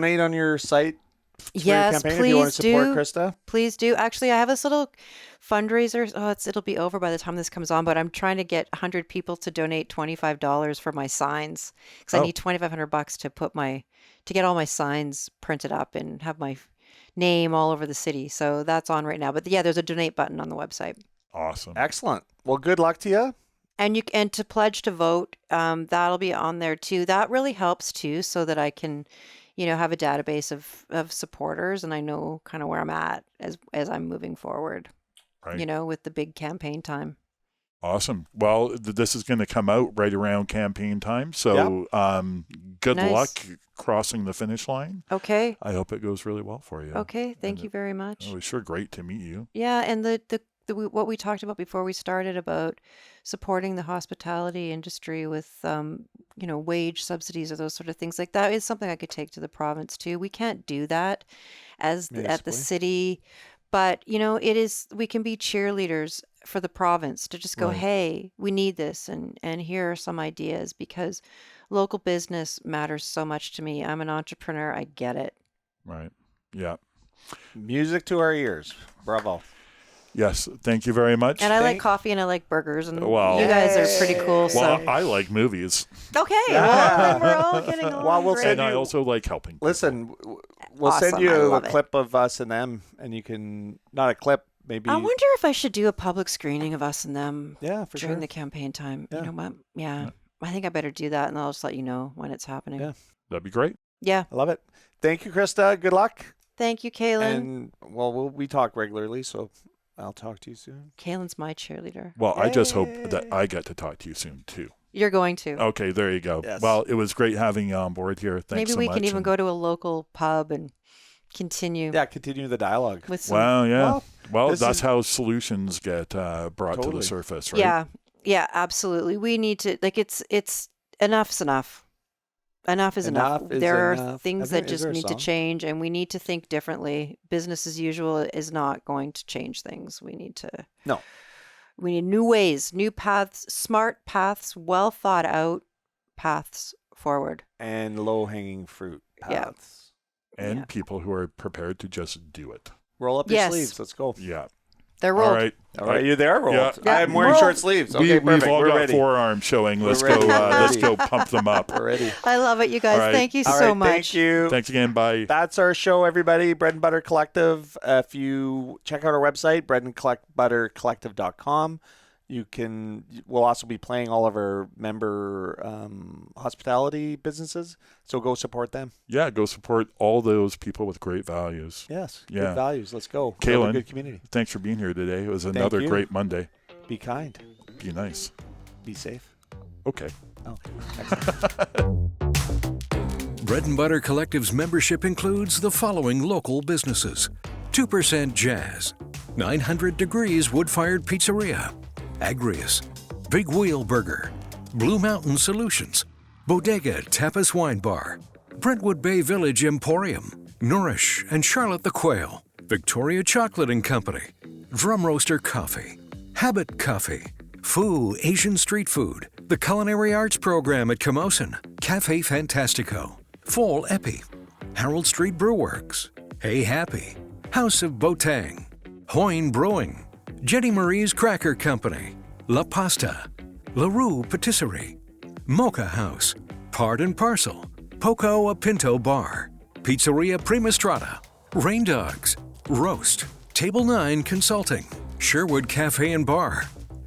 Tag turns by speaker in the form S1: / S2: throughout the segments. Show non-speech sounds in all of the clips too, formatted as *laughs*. S1: donate on your site for
S2: Yes,
S1: your campaign if you want to
S2: please
S1: support
S2: do.
S1: Krista?
S2: Please do. Actually, I have this little fundraiser. Oh, it's it'll be over by the time this comes on, but I'm trying to get 100 people to donate $25 for my signs cuz I
S1: Oh.
S2: need 2500 bucks to put my to get all my signs printed up and have my f- name all over the city. So that's on right now. But yeah, there's a donate button on the website.
S3: Awesome.
S1: Excellent. Well, good luck to you.
S2: And you c- and to pledge to vote, um, that'll be on there too. That really helps too, so that I can, you know, have a database of of supporters, and I know kind of where I'm at as as I'm moving forward.
S3: Right.
S2: You know, with the big campaign time.
S3: Awesome. Well, th- this is going to come out right around campaign time. So, um, good
S2: Nice.
S3: luck crossing the finish line.
S2: Okay.
S3: I hope it goes really well for you.
S2: Okay. Thank
S3: And
S2: you very much.
S3: It Oh, was sure great to meet you.
S2: Yeah, and the the. the w- What we talked about before we started about supporting the hospitality industry with, um, you know, wage subsidies or those sort of things like that is something I could take to the province too. We can't do that as the, at the
S1: Municipally.
S2: city, but you know, it is we can be cheerleaders for the province to just go,
S3: Right.
S2: hey, we need this, and and here are some ideas because local business matters so much to me. I'm an entrepreneur. I get it.
S3: Right. Yeah.
S1: Music to our ears. Bravo.
S3: Yes. Thank you very much.
S2: And I like
S1: Thank-
S2: coffee and I like burgers and
S3: Well-
S2: you guys are pretty cool.
S3: well,
S2: so
S3: I like movies,
S2: okay, well,
S1: Yeah.
S2: then we're
S1: *laughs*
S2: all getting along.
S1: Well, we'll
S2: great.
S1: send
S3: and I
S1: you-
S3: also like helping. people.
S1: Listen, w- we'll send
S2: Awesome. I
S1: you a
S2: love it.
S1: clip of us and them, and you can not a clip, maybe.
S2: I wonder if I should do a public screening of us and them
S1: yeah, for
S2: during
S1: sure.
S2: the campaign time.
S1: Yeah.
S2: You know what? Yeah. I think I better do that, and I'll just let you know when it's happening.
S1: Yeah.
S2: Yeah.
S3: That'd be great.
S1: I love it. Thank you, Krista. Good luck.
S2: Thank you, Kaylin.
S1: And well, we'll we talk regularly, so I'll talk to you soon.
S2: Kaylin's my cheerleader.
S3: Well, I just hope that
S1: Yay.
S3: I get to talk to you soon too.
S2: You're going to.
S1: Oh,
S3: Okay, there you go.
S1: Yes.
S3: Well, it was great having you on board here. Thanks
S2: Maybe
S3: so
S2: we
S3: much.
S2: can even
S3: and-
S2: go to a local pub and continue
S1: Yeah, continue the dialogue.
S2: with some.
S3: Wow, yeah. Well,
S1: Well, this
S3: that's
S1: is-
S3: how solutions get uh, brought to
S1: Totally.
S3: the surface, right?
S2: Yeah, yeah, absolutely. We need to like it's it's enough's enough. Enough is enough.
S1: Enough is
S2: there are
S1: enough.
S2: things
S1: I think- is
S2: that just
S1: there a
S2: need to
S1: song?
S2: change, and we need to think differently. Business as usual is not going to change things. We need to
S1: No.
S2: We need new ways, new paths, smart paths, well thought out paths forward.
S1: and low hanging fruit
S2: Yeah.
S1: paths.
S3: And
S2: Yeah.
S3: people who are prepared to just do it.
S1: Roll up your
S2: Yes.
S1: sleeves. Let's go.
S3: Yeah.
S2: They're rolled.
S3: All right.
S1: All right, you there, Roll?
S3: Yeah.
S2: Yeah,
S1: I'm wearing short
S2: rolled.
S1: sleeves.
S3: we,
S1: Okay, perfect.
S3: We've all
S1: We're
S3: got
S1: ready.
S3: forearms showing. Let's
S1: We're
S3: go.
S1: ready.
S3: Uh,
S1: We're
S3: let's go
S1: *laughs* ready.
S3: pump them up.
S1: We're ready.
S2: I love it, you guys.
S3: All right.
S2: Thank you
S1: All
S2: so
S1: right,
S2: much.
S1: Thank you.
S3: Thanks again. Bye.
S1: That's our show, everybody. Bread and Butter Collective. Uh, if you check out our website, bread and collect butter collective.com, you can, we'll also be playing all of our member um, hospitality businesses. So go support them.
S3: Yeah, go support all those people with great values.
S1: Yes.
S3: Yeah.
S1: Good values. Let's go. Build a
S3: Kaylin.
S1: good community.
S3: Thanks for being here today. It was another
S1: you.
S3: great Monday.
S1: Be kind.
S3: Be nice.
S1: Be safe.
S3: Okay.
S1: Oh.
S4: Bread and Butter Collective's membership includes the following local businesses 2% Jazz, 900 Degrees Wood Fired Pizzeria, Agrius, Big Wheel Burger, Blue Mountain Solutions, Bodega Tapas Wine Bar, Brentwood Bay Village Emporium, Nourish and Charlotte the Quail, Victoria Chocolate and Company, Drum Roaster Coffee, Habit Coffee, Foo Asian Street Food, the Culinary Arts Program at Camosun, Cafe Fantastico, Fall Epi, Harold Street Brewworks, Hey Happy, House of Botang, Hoyne Brewing, Jenny Marie's Cracker Company, La Pasta, LaRue Patisserie, Mocha House, Part and Parcel, Poco a Pinto Bar, Pizzeria Primastrada, Rain Dogs, Roast, Table 9 Consulting, Sherwood Cafe and Bar,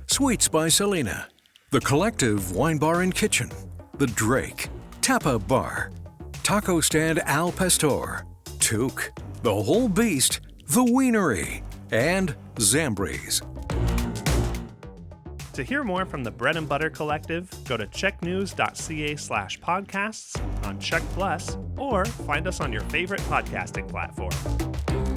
S4: Sweets by Selena, The Collective Wine Bar and Kitchen, The Drake, Tapa Bar, Taco Stand Al Pastor, Took, The Whole Beast, The Wienery, and Zambres.
S5: To hear more from the Bread and Butter Collective, go to checknews.ca slash podcasts on Check Plus or find us on your favorite podcasting platform.